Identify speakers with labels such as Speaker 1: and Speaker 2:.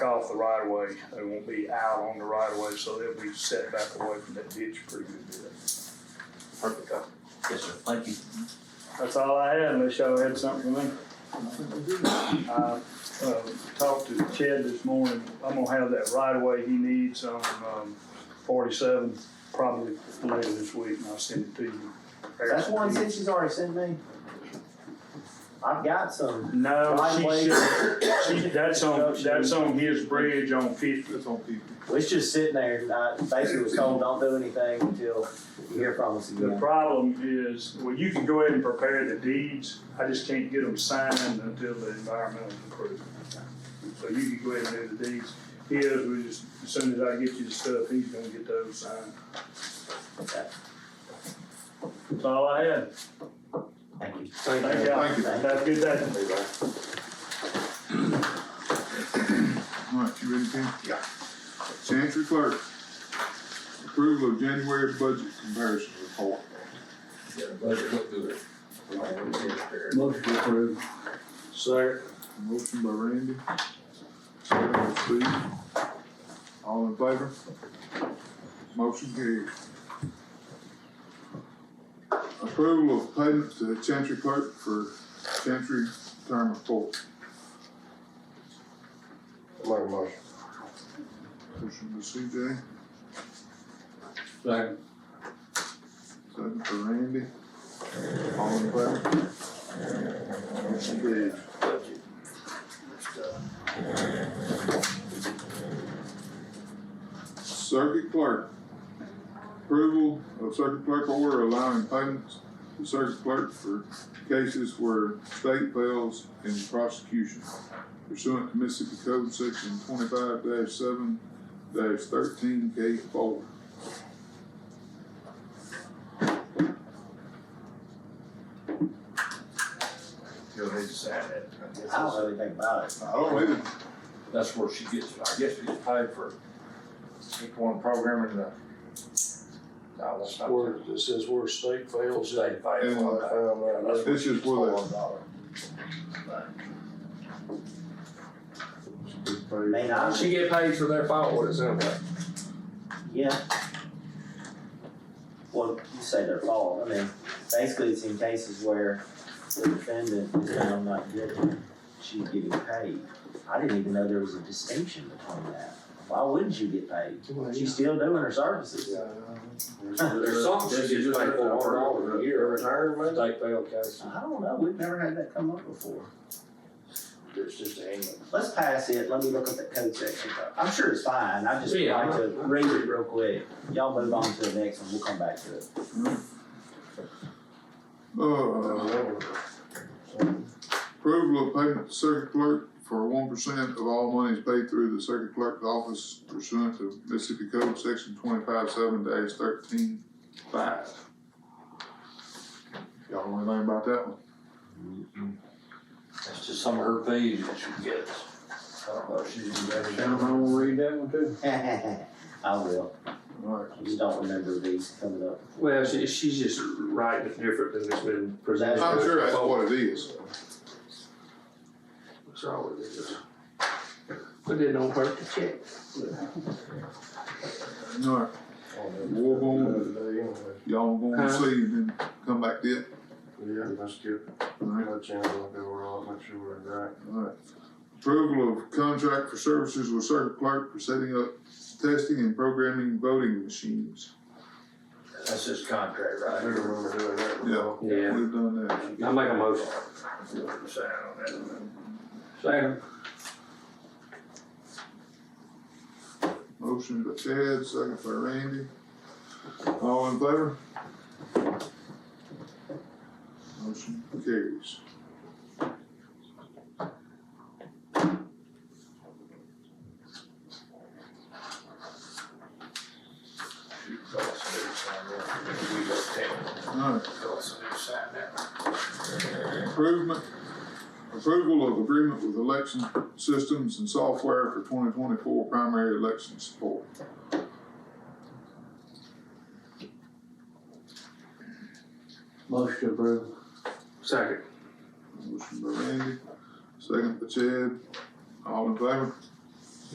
Speaker 1: off the right of way, they won't be out on the right of way, so they'll be set back away from that ditch pretty good bit.
Speaker 2: Perfect. Yes, sir. Thank you.
Speaker 3: That's all I had, unless y'all had something for me.
Speaker 1: I, uh, talked to Chad this morning, I'm gonna have that right of way he needs on, um, forty-seven, probably later this week, and I'll send it to you.
Speaker 4: That's one Cincy's already sent me. I've got some.
Speaker 1: No,
Speaker 4: Right
Speaker 1: she
Speaker 4: away.
Speaker 1: should, she, that's on, that's on his bridge on fifty.
Speaker 5: That's on people.
Speaker 4: Well, It's just sitting there. I basically was told, don't do anything until you hear from us
Speaker 1: The
Speaker 4: again.
Speaker 1: problem is, well, you can go ahead and prepare the deeds, I just can't get them signed until the environmental approval. So you can go ahead and do the deeds, he is, we just, as soon as I get you the stuff, he's gonna get those signed.
Speaker 3: That's all I had.
Speaker 4: Thank you.
Speaker 1: Thank y'all,
Speaker 5: Thank you.
Speaker 1: have a good day.
Speaker 5: All right, you ready, Ken? Yeah. Chancery clerk, approval of January budget comparison report.
Speaker 2: Motion to approve.
Speaker 3: Sir.
Speaker 5: Motion by Randy, second by Steve. All in favor? Motion carried. Approval of payment to Chancery clerk for Chancery term report. Motion by CJ,
Speaker 2: Second.
Speaker 5: second by Randy. All in favor? Motion carried. Circuit clerk. Approval of circuit clerk order allowing payments to circuit clerk for cases where state fails in prosecution pursuant to Mississippi Code Section twenty-five seven thirteen K four.
Speaker 2: You'll need to sign that.
Speaker 4: I don't know anything about it.
Speaker 5: I don't even,
Speaker 2: That's where she gets, I guess she gets paid for each one programming uh, the. No, that's not.
Speaker 6: Where, it says where state fails.
Speaker 2: State paid for it.
Speaker 5: this is where they.
Speaker 4: May not.
Speaker 6: She get paid for their firewood, is that right?
Speaker 4: Yeah. Well, you say their fault. I mean, basically, it's in cases where the defendant is found not guilty. She's getting paid. I didn't even know there was a distinction between that. Why wouldn't you get paid? She's still doing her services.
Speaker 6: There's something she gets paid for, one dollar a year, retirement. State fail case,
Speaker 4: I don't know. We've never had that come up before.
Speaker 6: there's just a hang.
Speaker 4: Let's pass it, let me look at that code section. I'm sure it's fine, I just
Speaker 6: Yeah.
Speaker 4: like to read it real quick. Y'all move on to the next one, we'll come back to it.
Speaker 5: Uh, Approval of payment to circuit clerk for one percent of all monies paid through the circuit clerk's office pursuant to Mississippi Code Section twenty-five seven dash thirteen five. Y'all know anything about that one?
Speaker 2: That's just some of her fees that she gets. I don't know, if she's even got any-
Speaker 6: read that one too.
Speaker 4: I will,
Speaker 5: Alright,
Speaker 4: I just don't remember these coming up.
Speaker 6: Well, she, she's just right, but different than it's been presented.
Speaker 5: I'm sure that's what it is.
Speaker 6: That's all it is. But it don't hurt to check.
Speaker 5: Alright,
Speaker 7: Oh,
Speaker 5: we're gonna, y'all gonna see and then come back to it.
Speaker 7: Yeah, that's good.
Speaker 5: Alright,
Speaker 7: Let you know if they were all, make sure we're right.
Speaker 5: Alright. Approval of contract for services with circuit clerk for setting up testing and programming voting machines.
Speaker 2: That's his contract,
Speaker 7: I
Speaker 2: right?
Speaker 7: do remember doing that.
Speaker 5: Yeah.
Speaker 6: Yeah,
Speaker 5: We've done that.
Speaker 6: I make a motion.
Speaker 2: Sign on that.
Speaker 6: Second.
Speaker 5: Motion by Chad, second by Randy. All in favor? Motion carries.
Speaker 2: She told us to do sign that. We just take it.
Speaker 5: Alright,
Speaker 2: Told us to do sign that.
Speaker 5: improvement, approval of agreement with election systems and software for twenty twenty-four primary election support.
Speaker 6: Motion approved. Second.
Speaker 5: Motion by Randy, second by Chad. All in favor?